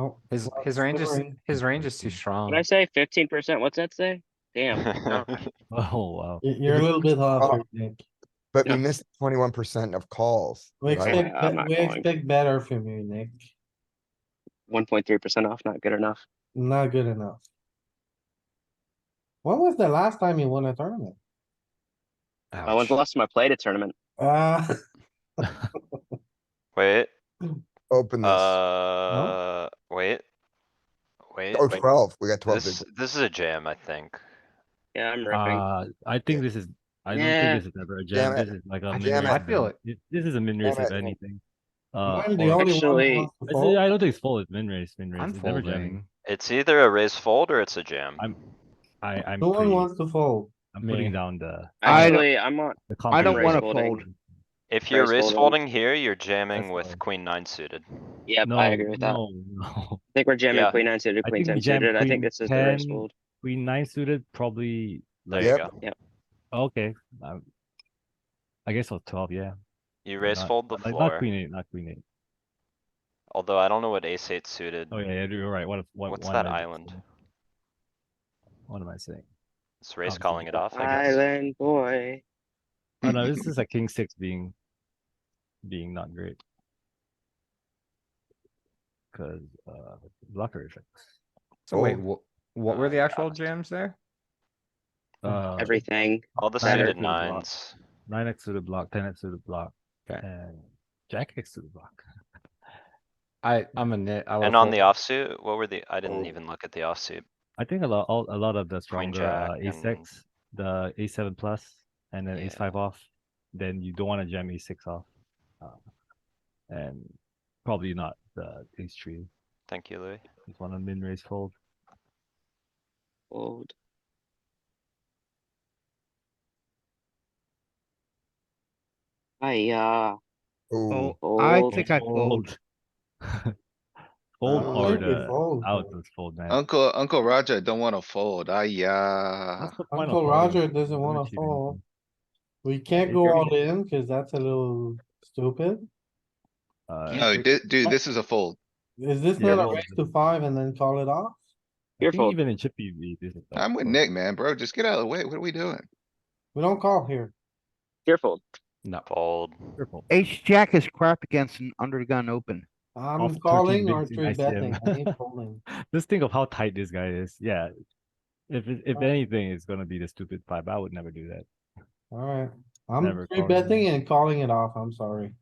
no. His, Oh, Well, his range is, scoring. his range is too strong. Did I say fifteen percent? What's that say? Damn. no. Oh, wow. You- You're a little bit off, Oh. here, Nick. But we Yeah. missed twenty-one percent of calls. We right? expect, I'm be- not we going. expect better from you, Nick. One point three percent off, not good enough. Not good enough. When was the last time you won a tournament? I was Ouch. lost my play to tournament. Uh, Wait, Open this. uh, wait. Wait, Oh, wait, twelve. We got twelve. this, bigs. this is a jam, I think. Yeah, I'm ripping. Uh, I think this is, I don't Yeah. think this is ever a Damn jam, it. this is like a min Damn raise. it. I feel event. This is a min raise Damn of it. anything. Uh, I'm the only or- one. who Actually- wants to I fold. say- I don't think it's full, it's min raise, min raise, I'm it's never jamming. folding. It's either a raise fold or it's a jam. I'm, I, I'm No one pretty, wants to fold. I'm putting Me. down the, I don't- Actually, I'm on. the I don't raise wanna confidence. folding. fold. If you're raise raise folding. folding here, you're jamming That's with fine. queen nine suited. Yep, No, I agree with that. I no, no. think we're jamming Yeah. queen nine suited, I queen think ten we jam suited. I queen think this is the race 10. fold. Queen nine suited probably, There like, you Yep. go. okay. um, I guess I'll twelve, yeah. You Why raise not? fold the Like, not floor, queen eight, not queen eight. although I don't know what ace eight suited. Oh, yeah, yeah, you're right, what, what? What's what am that I doing? island? What am I saying? It's raise Um, calling it off, I guess. Island boy. Oh no, this is a king six being, being not great. Cause, uh, blocker effect. So wait, Oh. what, what were the actual jams there? Hmm, Uh, Everything. All the Better suited fold block. nines. nine X to the block, ten X to the block, Okay. and jack X to the block. I, I'm a nit. I And will on the fold. offsuit, what were the, I didn't even look at the offsuit. I think a lot, all, a lot of the stronger, uh, jack ace X, the ace seven plus, and then ace Yeah. five off, then you don't wanna jam ace six off. uh, And probably not the ace three, Thank you, Louis. just wanna min raise fold. Fold. Hiya. Ooh, Oh, I Fold. think I fold. I Fold don't or think we the fold. uh, out of fold, man. Uncle, Uncle Roger don't wanna fold. Ah, yeah. What's the point of Uncle folding? Roger doesn't Doesn't wanna achieve fold. anything. We can't If go you're- all in cuz that's a little stupid. Uh, No, I di- dude, this is a fold. Is this not Yeah, a well- raise to five and then call it off? Your think fault. Even in Chippy V, this is. I'm with fold. Nick, man, bro. Just get out of the way. What are we doing? We don't call here. Fearful. No, Fold. Your fold. H jack is crap against an under the gun open. I'm Off 13 calling or bigs in three betting. I ICM. ain't folding. Just think of how tight this guy is. Yeah. If it, if anything, it's gonna be the stupid five. I would never do that. Alright, I'm Never three calling. betting and calling it off. I'm sorry.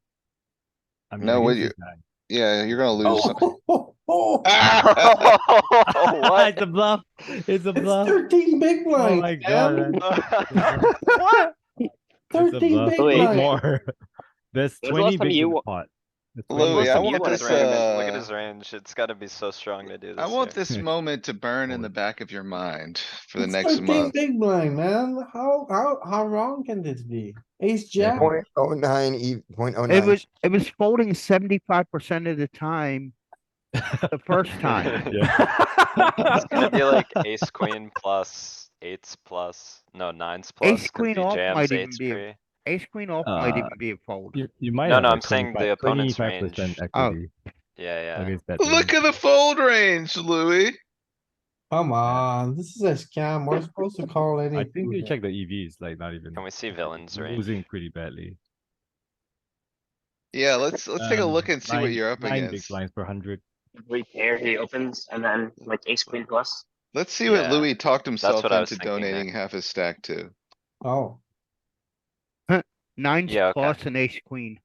I mean, No, would against Yeah, you're gonna lose. some- Oh, this Oh, guy. What? it's a bluff. It's a It's bluff. thirteen big Oh blinds. my man. god. man. It's a Thirteen bluff. big Wait, Eight blinds. more. There's When was the twenty last time bigs you in the wa- pot. There's Louis, 20 I bigs. want Look at this, his range. Look at uh, his range. It's gotta be so strong to do this. I want here. this moment to burn in the back of your mind for the It's next 13 month. Big blind, man. How, how, how wrong can this be? Ace, jack, point oh nine, e- point oh It nine. was, it was folding seventy-five percent of the time, the first time. It's gonna be like ace queen plus, eights plus, no, nines plus. 'cause queen he off jams might even eights be a- pre. Ace queen off might Uh, even be a fold. You, you might No, have no, like I'm saying the 25 opponent's 25% range. equity Oh. Yeah, yeah. against that Look range. at the fold range, Louis. come on, this is a scam, we're supposed to call any. I think you prudent. check the EVs, like not even Can we see villains range? losing pretty badly. Yeah, let's, let's take a Um, look and see what nine- you're up nine big against. blinds per hundred. We pair, he opens, and then like ace queen plus. Let's see what Yeah, Louis talked himself what I was into thinking, Nick. donating half his stack to. Oh, Nines yeah, okay. plus and ace queen.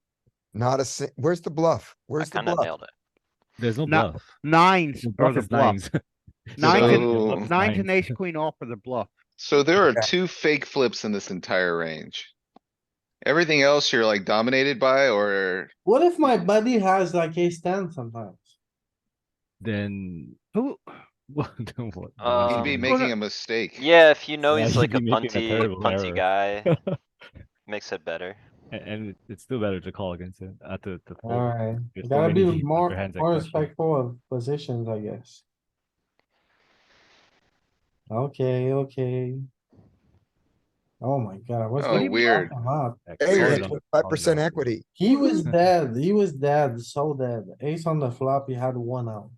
Not a, si- where's the bluff? I Where's the kinda bluff? nailed it. There's no No, bluff. Nines The are bluff the is bluff. nines. Nines So- and, nines and ace queen off are the bluff. So there are Okay. two fake flips in this entire range. Everything else you're like dominated by or what if my buddy has like ace ten sometimes? Then Who, what? then what? you'd Um, be making a mistake. Yeah, if you know Yeah, he's you'd like a be making a punty, terrible punty guy, makes it better. A- and it- it's still better to call against it. Uh, to, to fold. Alright, There's so gotta many be deep more, upper hands that more crush you. respectful of positions, I guess. Okay, okay. Oh my god, what's? Oh, what are you weird. talking about? Actually, Hey, I Weird. we're don't know five how percent that- equity. He was dead, he was dead, so dead. Ace on the flop, he had one out.